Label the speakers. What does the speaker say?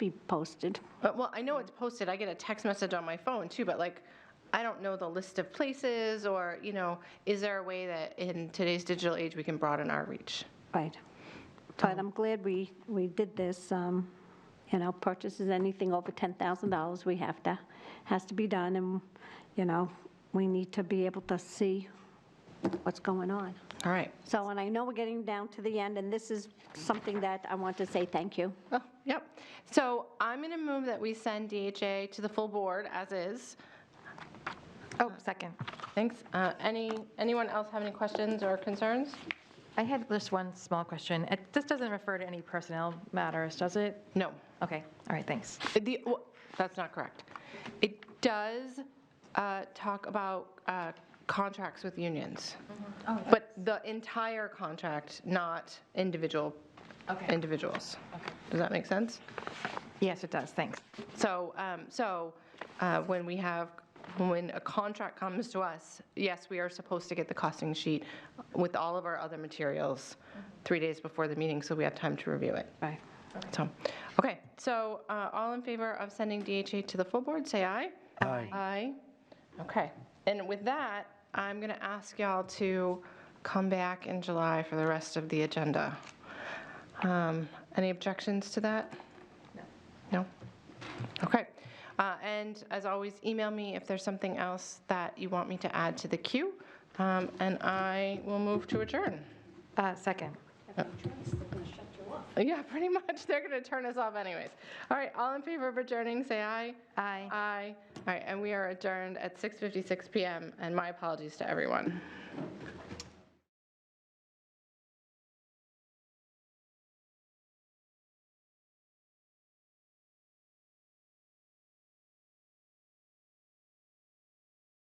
Speaker 1: be posted.
Speaker 2: But, well, I know it's posted, I get a text message on my phone too, but like, I don't know the list of places or, you know, is there a way that in today's digital age, we can broaden our reach?
Speaker 1: Right. But I'm glad we, we did this, um, you know, purchases, anything over $10,000, we have to, has to be done, and, you know, we need to be able to see what's going on.
Speaker 2: All right.
Speaker 1: So, and I know we're getting down to the end, and this is something that I want to say thank you.
Speaker 2: Oh, yep. So I'm going to move that we send DHA to the full board as is.
Speaker 3: Oh, second.
Speaker 2: Thanks. Uh, Any, anyone else have any questions or concerns?
Speaker 3: I had just one small question. It, this doesn't refer to any personnel matters, does it?
Speaker 2: No.
Speaker 3: Okay, all right, thanks.
Speaker 2: The, w- that's not correct. It does uh, talk about uh, contracts with unions. But the entire contract, not individual,
Speaker 3: Okay.
Speaker 2: individuals. Does that make sense?
Speaker 3: Yes, it does, thanks.
Speaker 2: So, um, so uh, when we have, when a contract comes to us, yes, we are supposed to get the costing sheet with all of our other materials three days before the meeting, so we have time to review it.
Speaker 1: Right.
Speaker 2: So, okay, so uh, all in favor of sending DHA to the full board, say aye.
Speaker 4: Aye.
Speaker 2: Aye. Okay, and with that, I'm going to ask y'all to come back in July for the rest of the agenda. Um, Any objections to that? No? Okay. Uh, And as always, email me if there's something else that you want me to add to the queue, Um, and I will move to adjourn.
Speaker 3: Uh, second.
Speaker 2: Yeah, pretty much. They're going to turn us off anyways. All right, all in favor of adjourning, say aye.
Speaker 3: Aye.
Speaker 2: Aye. All right, and we are adjourned at 6:56 PM, and my apologies to everyone.